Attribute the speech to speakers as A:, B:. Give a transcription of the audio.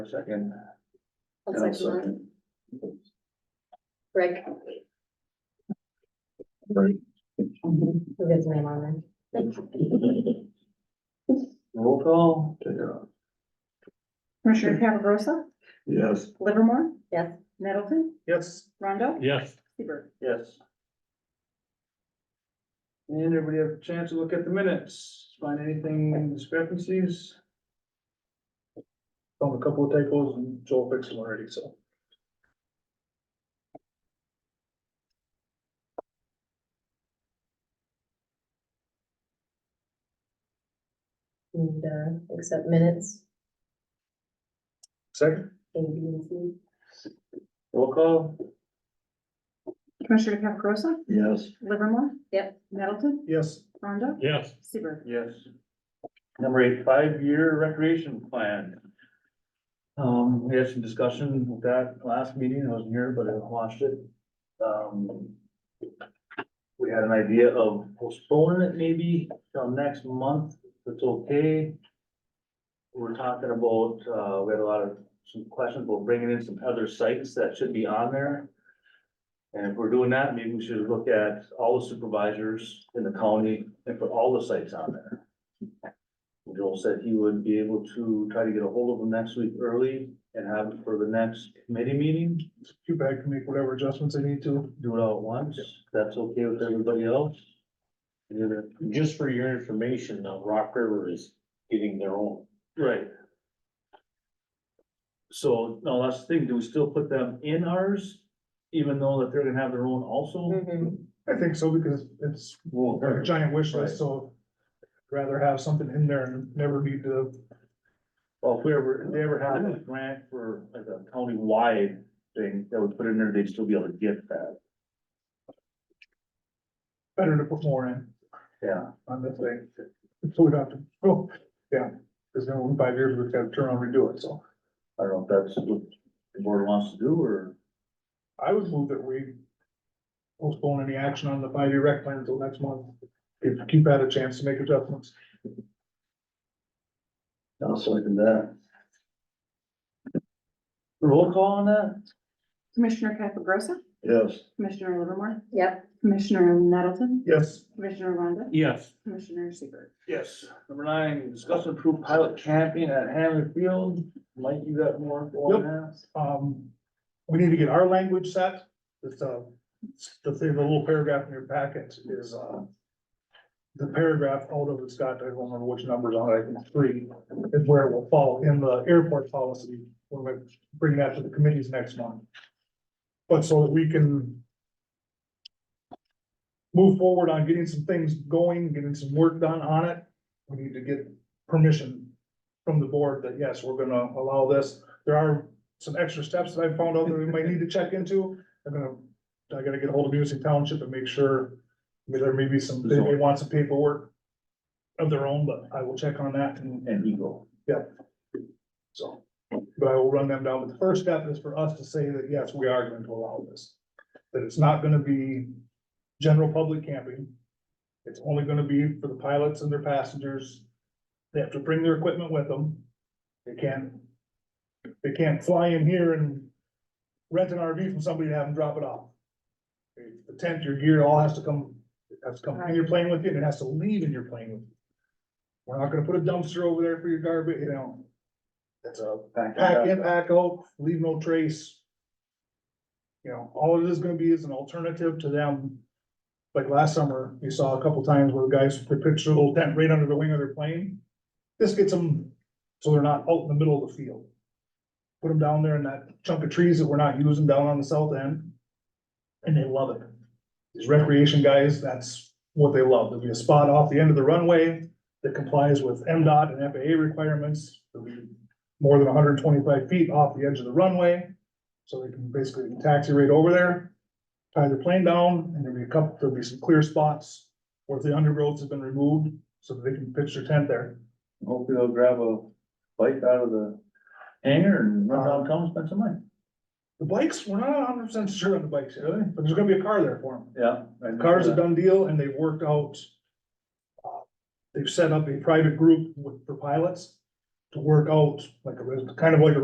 A: Second.
B: I'll second that. Greg.
A: Greg.
B: Who gets my name on there?
A: Roll call, take it off.
C: Commissioner Caparosa,
A: Yes.
C: Livermore,
B: Yes,
C: Nettleton,
A: Yes.
C: Rondo,
D: Yes,
C: Seaver.
A: Yes. And everybody have a chance to look at the minutes, find anything discrepancies? Found a couple of typos and Joel fixed them already, so.
B: and, uh, accept minutes,
A: Second.
B: A, B, and C.
A: Roll call.
C: Commissioner Caparosa,
A: Yes.
C: Livermore.
B: Yep.
C: Nettleton,
A: Yes.
C: Rondo,
D: yes,
C: Seaver.
A: Yes. Number eight, five-year recreation plan. Um, we had some discussion with that last meeting, I wasn't here, but I watched it. Um. We had an idea of postponing it maybe till next month, if it's okay. We're talking about, uh, we had a lot of, some questions about bringing in some other sites that should be on there. And if we're doing that, maybe we should look at all the supervisors in the county and put all the sites on there. Joel said he would be able to try to get a hold of them next week early and have it for the next committee meeting.
E: Too bad to make whatever adjustments they need to.
A: Do it all at once. That's okay with everybody else? Any other-
D: just for your information, now Rock River is getting their own.
A: Right. So, no, that's the thing. Do we still put them in ours? Even though that they're gonna have their own also?
B: Mhm.
E: I think so because it's
A: Won't
E: a
A: hurt.
E: giant wish
A: Right.
E: list, so I'd rather have something in there and never need to,
A: Well, if we ever, if they ever had a grant for like a county-wide thing that would put in there, they'd still be able to get that.
E: better to put more in
A: Yeah.
E: on this thing. So we don't have to, oh, yeah, because then in five years, we've got to turn around and redo it, so.
A: I don't know if that's what the board wants to do or.
E: I would move that we postpone any action on the five-year rec plan until next month. Give, keep that a chance to make adjustments.
A: I'll second that. Roll call on that?
C: Commissioner Caparosa,
A: Yes.
C: Commissioner Livermore,
B: Yep,
C: Commissioner Nettleton,
E: Yes.
C: Commissioner Rondo,
D: Yes,
C: Commissioner Seaver.
A: Yes. Number nine, discuss and approve pilot camping at Hammond Field. Mike, you got more on
E: Yep.
A: that?
E: Um, we need to get our language set, it's, uh, the thing, the little paragraph in your packet is, uh. The paragraph, although it's got, I don't remember which numbers on it, I think three, is where it will fall in the airport policy, when we bring that to the committees next month. But so that we can. Move forward on getting some things going, getting some work done on it, we need to get permission. From the board that, yes, we're gonna allow this, there are some extra steps that I found out that we might need to check into. I'm gonna, I gotta get ahold of Music Township and make sure, I mean, there may be some, they may want some paperwork of their own, but I will check on that and,
A: And Eagle.
E: so. But I will run them down, but the first step is for us to say that, yes, we are going to allow this. That it's not gonna be general public camping. It's only gonna be for the pilots and their passengers. They have to bring their equipment with them. They can't, they can't fly in here and rent an RV from somebody and have them drop it off. The tent, your gear, all has to come, has to come in your plane with you, and it has to leave in your plane with you. We're not gonna put a dumpster over there for your garbage, you know. It's a pack in, pack out, oh, leave no trace. You know, all it is gonna be is an alternative to them. Like last summer, you saw a couple times where the guys put picture a little tent right under the wing of their plane. This gets them, so they're not out in the middle of the field. Put them down there in that chunk of trees that we're not using down on the south end. And they love it. These recreation guys, that's what they love. There'll be a spot off the end of the runway that complies with MDOT and FAA requirements. There'll be more than hundred and twenty-five feet off the edge of the runway. So they can basically taxi right over there, tie their plane down, and there'll be a couple, there'll be some clear spots where the undergrowth has been removed, so that they can pitch their tent there.
A: Hopefully they'll grab a bike out of the hangar and run downtown and spend some money.
E: The bikes, we're not hundred percent sure on the bikes, really, but there's gonna be a car there for them.
A: Yeah.
E: The car's
A: uh,
E: a done deal, and they've worked out. uh, They've set up a private group with, for pilots to work out, like, a res- kind of like a